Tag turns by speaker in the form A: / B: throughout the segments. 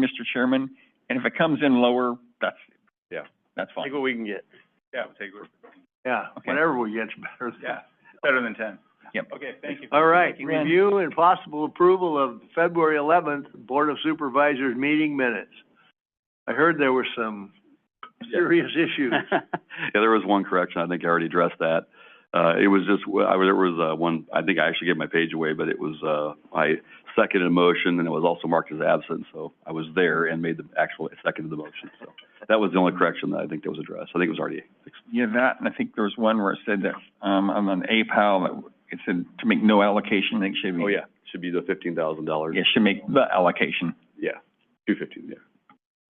A: Mr. Chairman, and if it comes in lower, that's.
B: Yeah.
A: That's
C: Take
A: fine.
C: what we can get.
B: Yeah, we'll take it.
C: Yeah,
A: Okay.
C: whatever we get's better.
B: Yeah, better than ten.
A: Yep.
B: Okay, thank you.
C: All right,
A: Thank you, Ren.
C: review and possible approval of February eleventh Board of Supervisors meeting minutes. I heard there were some serious issues.
D: Yeah, there was one correction. I think I already addressed that. Uh, it was just, I, there was, uh, one, I think I actually gave my page away, but it was, uh, I seconded a motion and it was also marked as absent, so I was there and made the actual, seconded the motion, so. That was the only correction that I think that was addressed. I think it was already fixed.
A: Yeah, that, and I think there was one where it said that, um, on an APAL, that it said to make no allocation, I think it should be.
D: Oh, yeah, should be the fifteen thousand dollars.
A: Yeah, should make the allocation.
D: Yeah, two fifteen, yeah.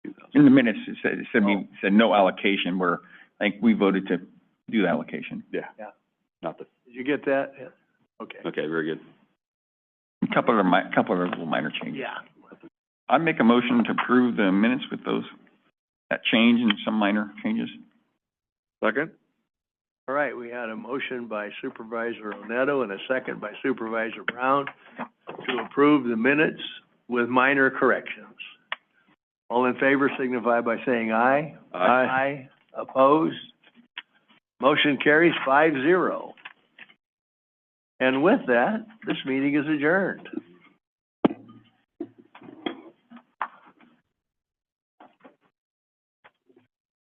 D: 15,000.
A: In the minutes, it said, it said,
D: Oh.
A: we said no allocation, where, I think we voted to do the allocation.
C: Yeah.
D: Not the,
C: Did you get that? Yeah. Okay.
D: okay, very good.
A: A Couple of, mi- couple of little minor changes.
C: Yeah.
A: I make a motion to approve the minutes with those, that change and some minor changes.
D: Second?
C: All right, we had a motion by Supervisor Oneto and a second by Supervisor Brown to approve the minutes with minor corrections. All in favor signify by saying aye.
D: Aye.
C: Aye. Opposed? Motion carries five zero. And with that, this meeting is adjourned.